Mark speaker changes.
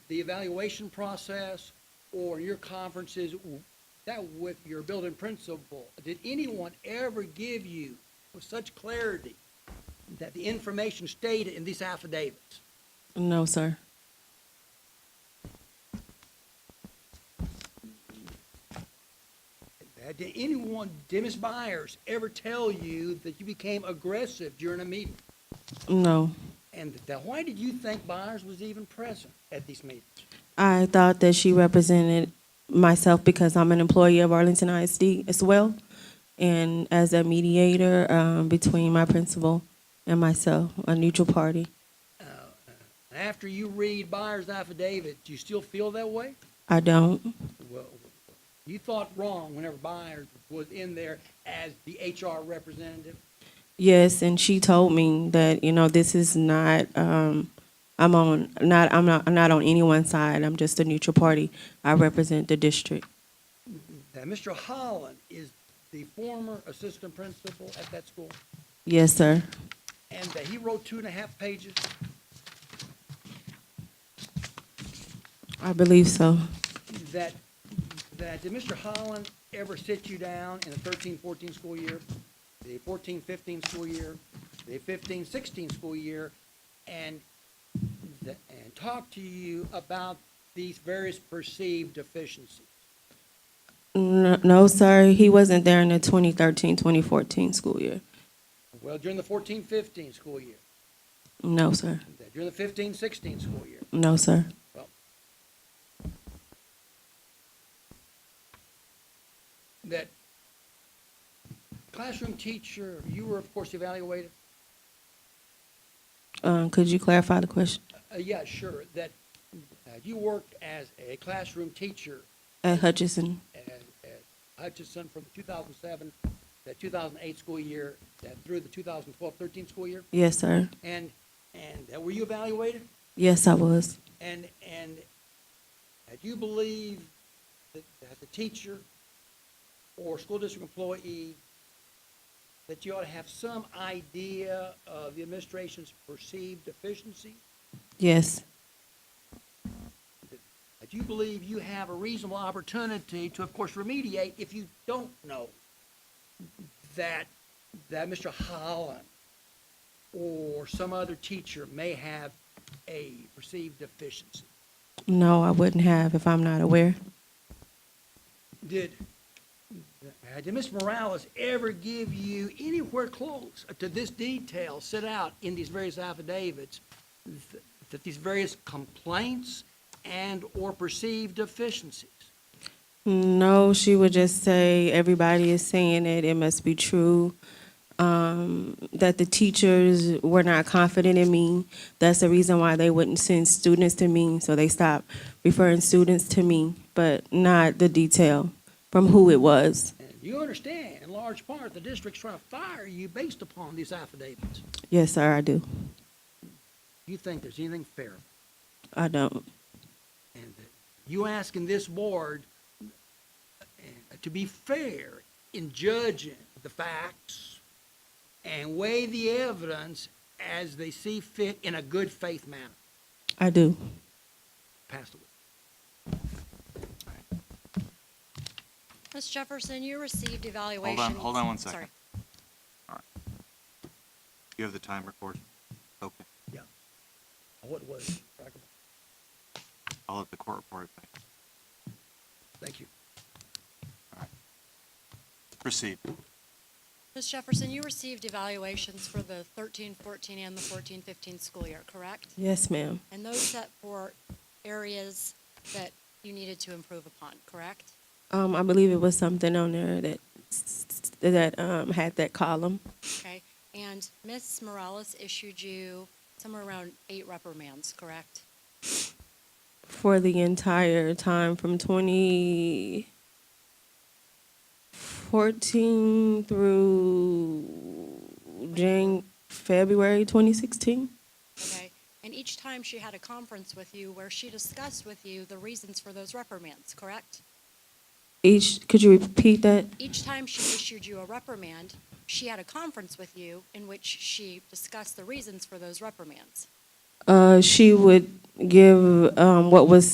Speaker 1: the evaluation process or your conferences, w- that with your building principal, did anyone ever give you with such clarity that the information stated in these affidavits?
Speaker 2: No, sir.
Speaker 1: Uh, Did anyone, did Ms. Byers ever tell you that you became aggressive during a meeting?
Speaker 2: No.
Speaker 1: And that, why did you think Byers was even present at these meetings?
Speaker 2: I thought that she represented myself because I'm an employee of Arlington ISD as well. And as a mediator um, between my principal and myself, a neutral party.
Speaker 1: And After you read Byers' affidavit, do you still feel that way?
Speaker 2: I don't.
Speaker 1: Well, you thought wrong whenever Byers was in there as the HR representative.
Speaker 2: Yes, and she told me that you know this is not. Um, I'm on not. I'm not. I'm not on anyone's side. I'm just a neutral party. I represent the district.
Speaker 1: That Mr. Holland is the former assistant principal at that school,
Speaker 2: Yes, sir.
Speaker 1: and that he wrote two and a half pages.
Speaker 2: I believe so.
Speaker 1: That, that, did Mr. Holland ever sit you down in the 13-14 school year, the 14-15 school year, the 15-16 school year, and, th- and talk to you about these various perceived deficiencies?
Speaker 2: No, no, sir. He wasn't there in the 2013-2014 school year.
Speaker 1: Well, during the 14-15 school year,
Speaker 2: No, sir.
Speaker 1: during the 15-16 school year,
Speaker 2: No, sir.
Speaker 1: Well, that classroom teacher, you were of course evaluated.
Speaker 2: Um, could you clarify the question
Speaker 1: Uh, yeah, sure. That uh, you worked as a classroom teacher
Speaker 2: at Hutchinson?
Speaker 1: at, at Hutchinson from 2007, that 2008 school year, that through the 2012-13 school year,
Speaker 2: Yes, sir.
Speaker 1: and and uh, were you evaluated?
Speaker 2: Yes, I was.
Speaker 1: And and uh, do you believe that as a teacher or school district employee, that you ought to have some idea of the administration's perceived deficiency?
Speaker 2: Yes.
Speaker 1: Uh, Do you believe you have a reasonable opportunity to, of course, remediate if you don't know that that Mr. Holland or some other teacher may have a perceived deficiency?
Speaker 2: No, I wouldn't have if I'm not aware.
Speaker 1: Did, uh, did Ms. Morales ever give you anywhere close to this detail set out in these various affidavits, th- that these various complaints and/or perceived deficiencies?
Speaker 2: No, she would just say everybody is saying it. It must be true. Um, that the teachers were not confident in me. That's the reason why they wouldn't send students to me. So they stopped referring students to me, but not the detail from who it was.
Speaker 1: And you understand, in large part, the district's trying to fire you based upon these affidavits.
Speaker 2: Yes, sir, I do.
Speaker 1: You think there's anything fair?
Speaker 2: I don't.
Speaker 1: And you asking this board uh, to be fair in judging the facts and weigh the evidence as they see fit in a good faith manner.
Speaker 2: I do.
Speaker 1: Pass the word.
Speaker 3: Ms. Jefferson, you received
Speaker 4: on-
Speaker 3: evaluation.
Speaker 4: hold on one
Speaker 3: Sorry.
Speaker 4: second. You have the time recorded? Okay,
Speaker 1: What was, it?
Speaker 4: I'll let the court report it. back.
Speaker 1: thank you.
Speaker 4: Proceed.
Speaker 3: Ms. Jefferson, you received evaluations for the 13-14 and the 14-15 school year, correct?
Speaker 2: Yes, ma'am.
Speaker 3: And those set for areas that you needed to improve upon, correct?
Speaker 2: Um, I believe it was something on there that s- s- that um, had that column.
Speaker 3: Okay, and Ms. Morales issued you somewhere around eight reprimands, correct?
Speaker 2: for the entire time from 2014 through Jan- February 2016.
Speaker 3: Okay, and each time she had a conference with you where she discussed with you the reasons for those reprimands, correct?
Speaker 2: Each, could you repeat that?
Speaker 3: Each time she issued you a reprimand, she had a conference with you in which she discussed the reasons for those reprimands.
Speaker 2: Uh, she would give um, what was